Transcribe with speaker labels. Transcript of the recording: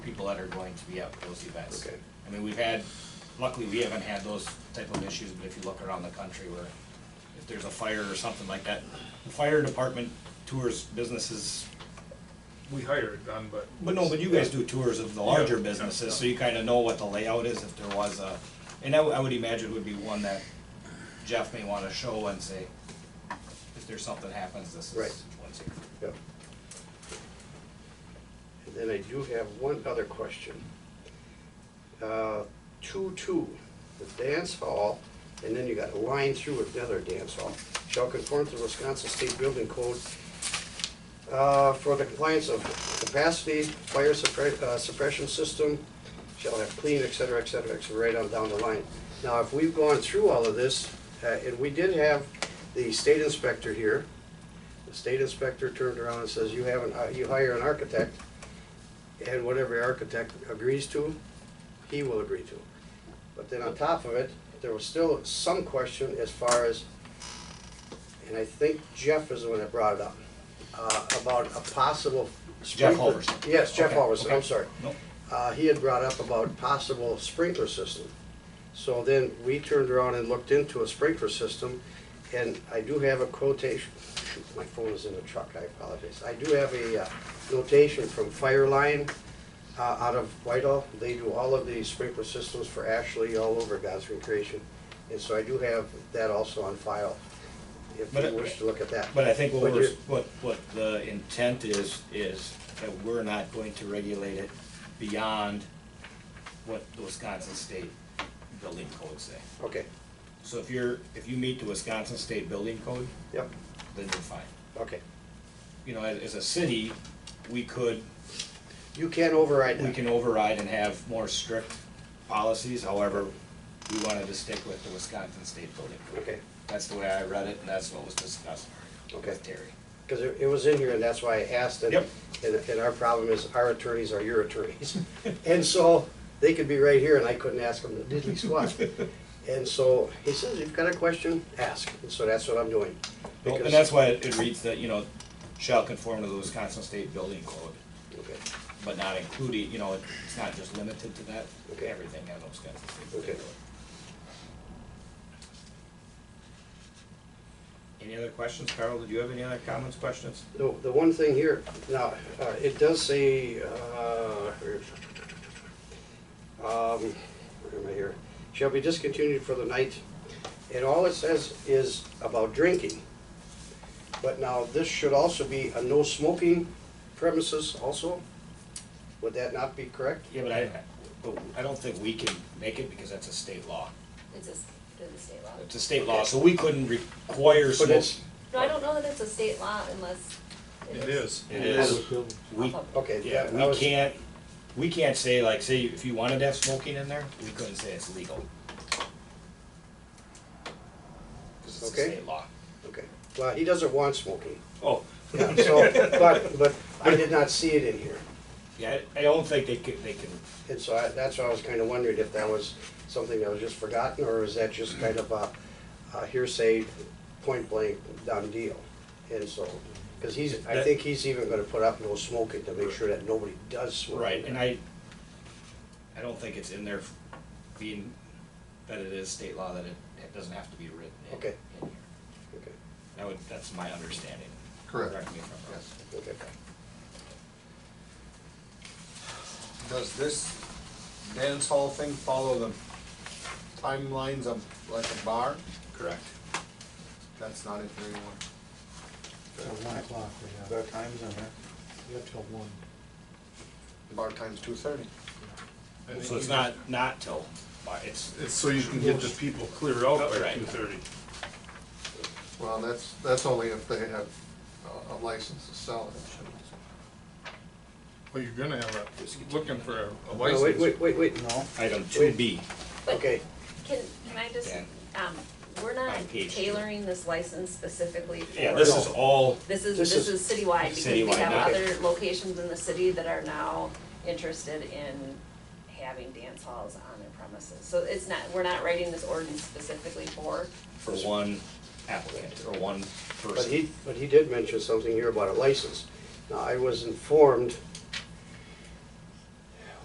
Speaker 1: people that are going to be at those events.
Speaker 2: Okay.
Speaker 1: I mean, we've had, luckily, we haven't had those type of issues, but if you look around the country where if there's a fire or something like that, the fire department tours businesses,
Speaker 3: We hired it done, but.
Speaker 1: but no, but you guys do tours of the larger
Speaker 3: Yeah.
Speaker 1: businesses, so you kinda know what the layout is if there was a, and I, w- I would imagine would be one that Jeff may wanna show and say, if there's something happens, this
Speaker 2: Right.
Speaker 1: is what's here.
Speaker 2: Yep. And then I do have one other question. Uh, Two-two, the dance hall, and then you got a line through another dance hall, shall conform to the Wisconsin State Building Code uh, for the compliance of capacity, fire suppre- uh, suppression system, shall have clean, et cetera, et cetera, et cetera, right on down the line. Now, if we've gone through all of this, uh, and we did have the state inspector here, the state inspector turned around and says, you have an, uh, you hire an architect, and whatever architect agrees to, he will agree to. But then on top of it, there was still some question as far as, and I think Jeff is the one that brought it up, uh, about a possible
Speaker 1: Jeff
Speaker 2: sprinkler-
Speaker 1: Halverson.
Speaker 2: Yes, Jeff
Speaker 1: Okay,
Speaker 2: Halverson, I'm
Speaker 1: okay.
Speaker 2: sorry.
Speaker 1: Nope.
Speaker 2: Uh, he had brought up about possible sprinkler system. So then we turned around and looked into a sprinkler system, and I do have a quotation, shoot, my phone is in the truck, I apologize. I do have a uh, notation from Fireline uh, out of Whitehall. They do all of the sprinkler systems for Ashley all over God's Recreation. And so I do have that also on file, if
Speaker 1: But it-
Speaker 2: you wish to look at that.
Speaker 1: But I think what
Speaker 2: But
Speaker 1: we're,
Speaker 2: you're-
Speaker 1: what, what the intent is, is that we're not going to regulate it beyond what the Wisconsin state building codes say.
Speaker 2: Okay,
Speaker 1: So if you're, if you meet the Wisconsin state building code,
Speaker 2: yep,
Speaker 1: then you're fine.
Speaker 2: okay.
Speaker 1: You know, as, as a city, we could,
Speaker 2: You can't override that.
Speaker 1: we can override and have more strict policies, however, we wanted to stick with the Wisconsin state building code.
Speaker 2: Okay.
Speaker 1: That's the way I read it, and that's what was discussed
Speaker 2: Okay.
Speaker 1: with Terry.
Speaker 2: Because it it was in here, and that's why I asked it.
Speaker 1: Yep.
Speaker 2: And, and our problem is, our attorneys are your attorneys. And so, they could be right here, and I couldn't ask them the diddly squat. And so, he says, you've got a question, ask, and so that's what I'm doing.
Speaker 1: Well,
Speaker 2: Because-
Speaker 1: Oh, And that's why it it reads that, you know, shall conform to the Wisconsin State Building Code,
Speaker 2: Okay,
Speaker 1: but not including, you know, it's not just limited to that,
Speaker 2: Okay.
Speaker 1: everything on the Wisconsin State Building
Speaker 2: Okay.
Speaker 1: Code. Any other questions, Carl, did you have any other comments, questions?
Speaker 2: the, the one thing here, now, uh, it does say, uh, um, where am I here? Shall be discontinued for the night, and all it says is about drinking. But now, this should also be a no smoking premises also? Would that not be correct?
Speaker 1: Yeah, but I, but I don't think we can make it because that's a state law,
Speaker 4: It's a, s- it's a state law.
Speaker 1: it's a state law, so we couldn't require
Speaker 2: But
Speaker 1: smoke.
Speaker 2: it's,
Speaker 4: No, I don't know that it's a state law unless it is.
Speaker 3: It is.
Speaker 1: It is, we,
Speaker 2: okay.
Speaker 1: Yeah,
Speaker 2: that- I
Speaker 1: we
Speaker 2: was-
Speaker 1: can't, we can't say, like, say, if you wanted to have smoking in there, we couldn't say it's legal. Cause it's a
Speaker 2: Okay.
Speaker 1: state law.
Speaker 2: Okay, well, he doesn't want smoking,
Speaker 1: Oh.
Speaker 2: yeah, so, but, but I did not see it in here.
Speaker 1: Yeah, I I don't think they could, they can,
Speaker 2: And so I, that's why I was kind of wondering if that was something that was just forgotten, or is that just kind of a a hearsay, point blank done deal? And so, because he's, I
Speaker 1: That-
Speaker 2: think he's even gonna put up no smoking to make sure that nobody does smoke.
Speaker 1: right, and I, I don't think it's in there being, that it is state law, that it, it doesn't have to be written in,
Speaker 2: Okay.
Speaker 1: in here.
Speaker 2: Okay,
Speaker 1: That would, that's my understanding.
Speaker 5: Correct.
Speaker 1: Correct me if I'm wrong.
Speaker 5: Yes.
Speaker 2: okay.
Speaker 5: Does this dance hall thing follow the timelines of like a bar?
Speaker 1: Correct.
Speaker 5: That's not it anymore.
Speaker 6: Till one o'clock, we have. There times on that? We have till one.
Speaker 5: The bar time's two thirty.
Speaker 3: I think
Speaker 1: So it's
Speaker 3: you
Speaker 1: not, not till, it's,
Speaker 3: just- It's so you can get the people cleared out by
Speaker 1: Right.
Speaker 3: two thirty.
Speaker 5: Well, that's, that's only if they have a- a license to sell it.
Speaker 3: Well, you're gonna have a, looking for a-
Speaker 2: No,
Speaker 3: a
Speaker 2: Wait,
Speaker 3: license.
Speaker 2: wait, wait, wait,
Speaker 6: No?
Speaker 1: item two B.
Speaker 4: But
Speaker 2: okay,
Speaker 4: Can, can I just,
Speaker 1: Yeah.
Speaker 4: um, we're not
Speaker 1: On page two.
Speaker 4: tailoring this license specifically for.
Speaker 1: Yeah, this is all
Speaker 4: This is,
Speaker 2: This
Speaker 4: this
Speaker 2: is
Speaker 4: is citywide, because we
Speaker 1: citywide,
Speaker 4: have
Speaker 1: not-
Speaker 4: other locations in the city that are now interested in having dance halls on their premises. So it's not, we're not writing this ordinance specifically for,
Speaker 1: for one applicant or one person.
Speaker 2: but he, but he did mention something here about a license. Now, I was informed